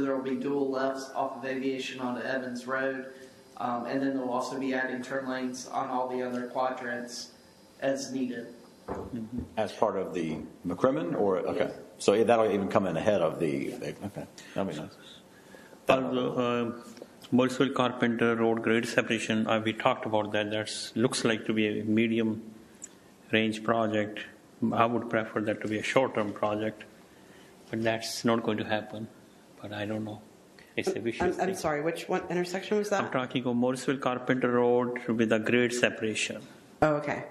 there will be dual lefts off of Aviation onto Evans Road. Um, and then they'll also be adding turn lanes on all the other quadrants as needed. As part of the McCrimmon, or, okay, so that'll even come in ahead of the, okay, that'd be nice. Uh, Burrisville Carpenter Road grade separation, uh, we talked about that. That's, looks like to be a medium range project. I would prefer that to be a short term project, but that's not going to happen. But I don't know. It's a vicious I'm, thing. I'm sorry, which one intersection was I'm that? talking of Morrisville Carpenter Road with a grade separation. Oh, okay.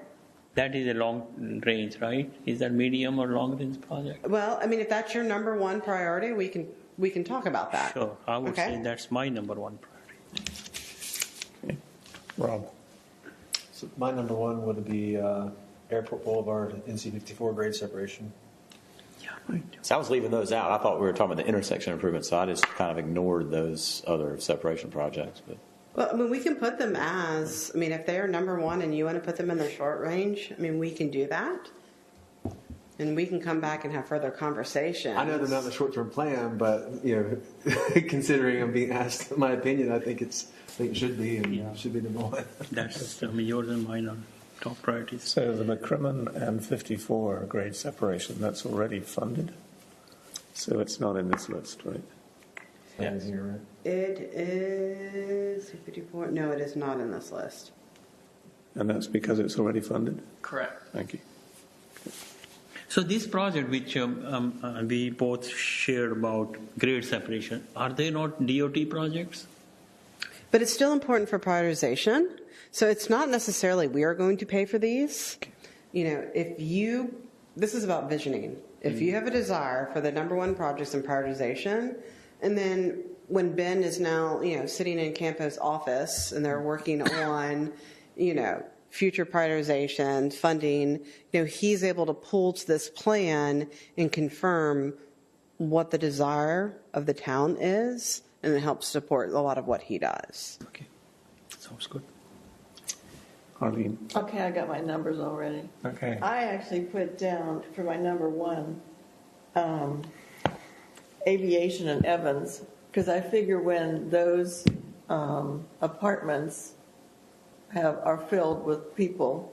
That is a long range, right? Is that medium or long range project? Well, I mean, if that's your number one priority, we can, we can talk about that. Sure, I would Okay. say that's my number one priority. Rob. So my number one would be uh, Airport Boulevard, NC 54 grade separation. So I was leaving those out. I thought we were talking about the intersection improvements, so I just kind of ignored those other separation projects, but. Well, I mean, we can put them as, I mean, if they are number one and you want to put them in their short range, I mean, we can do that. And we can come back and have further conversations. I know they're not the short term plan, but you know, considering I'm being asked my opinion, I think it's I think it should be and Yeah. should be number one. That's, I mean, yours and mine are top priorities. So the McCrimmon and 54 grade separation, that's already funded. So it's not in this list, right? Yeah, you're right. It is 54. No, it is not in this list. And that's because it's already funded? Correct. Thank you. So this project, which um, um, uh, we both shared about grade separation, are they not DOT projects? But it's still important for prioritization. So it's not necessarily we are going to pay for these. You know, if you, this is about visioning. If you have a desire for the number one projects in prioritization, and then when Ben is now, you know, sitting in Campo's office and they're working on, you know, future prioritization, funding, you know, he's able to pull to this plan and confirm what the desire of the town is, and it helps support a lot of what he does. Okay, sounds good. Arlene. Okay, I got my numbers already. Okay. I actually put down for my number one, um, aviation and Evans, because I figure when those, um, apartments have, are filled with people,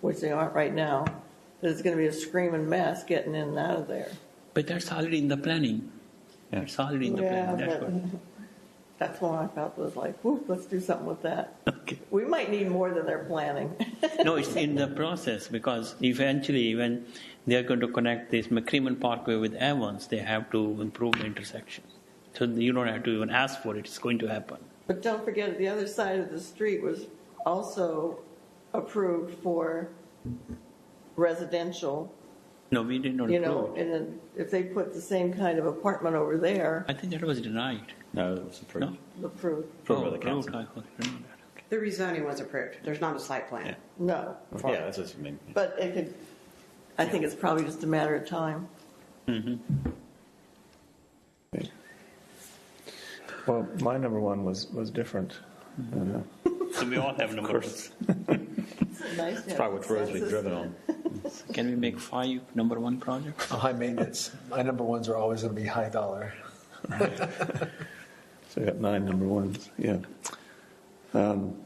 which they aren't right now, there's gonna be a screaming mess getting in and out of there. But that's already in the planning. Yeah. It's already in the Yeah, planning. That's but- what. That's when I felt was like, whoop, let's do something with that. Okay. We might need more than they're planning. No, it's in the process because eventually, when they are going to connect this McCrimmon Parkway with Evans, they have to improve the intersection. So you don't have to even ask for it; it's going to happen. But don't forget, the other side of the street was also approved for residential, No, we did not you approve know, it. and then if they put the same kind of apartment over there, I think that was denied. No, that was approved. No? approved, Approved by Oh, the approved, council. I thought, I remember that. The rezoning was approved. There's not a site plan. no. Yeah, that's just, I mean, But it could, I think it's probably just a matter of time. Well, my number one was, was different. Uh, So we all have numbers. Nice to have probably which roads we've consensus. driven on. Can we make five number one projects? High maintenance. My number ones are always going to be high dollar. So I got nine number ones, yeah. Um,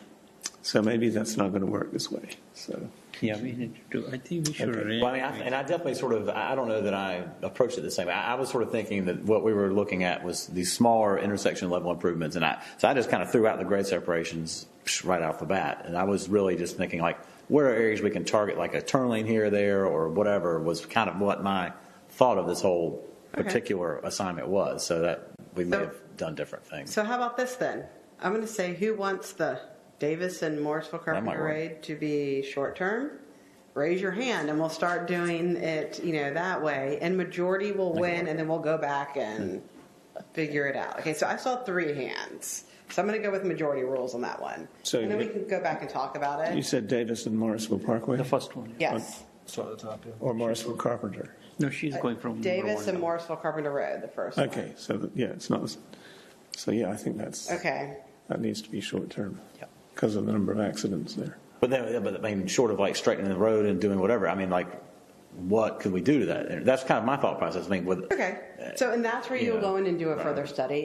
So maybe that's not going to work this way, so. Yeah, we need to do, I think we should arrange. Well, I mean, I, and I definitely sort of, I I don't know that I approached it the same. I, I was sort of thinking that what we were looking at was these smaller intersection level improvements, and I, so I just kind of threw out the grade separations psh, right off the bat, and I was really just thinking like, where are areas we can target, like a turn lane here or there or whatever, was kind of what my thought of this whole Okay. particular assignment was, so that we may So- have done different things. So how about this then? I'm going to say who wants the Davis and Morrisville That might Carpenter work. Raid to be short term? Raise your hand and we'll start doing it, you know, that way. And majority will win and then we'll go back and figure it out. Okay, so I saw three hands. So I'm going to go with majority rules on that one. So and then we you- can go back and talk about You it. said Davis and Morrisville Parkway? The first one. Yes. Start at the top. Yeah. Or Morrisville Carpenter? No, she's going from. number Davis one. and Morrisville Carpenter Road, the first one. Okay, so, that- yeah, it's not, so yeah, I think that's, Okay. that needs to be short-term because of the number of accidents there. But then, but I mean, short of like straightening the road and doing whatever, I mean, like, what could we do to that? And that's kind of my thought process. I mean, with Okay, so, and that's where you'll Yeah. go in and do a further study,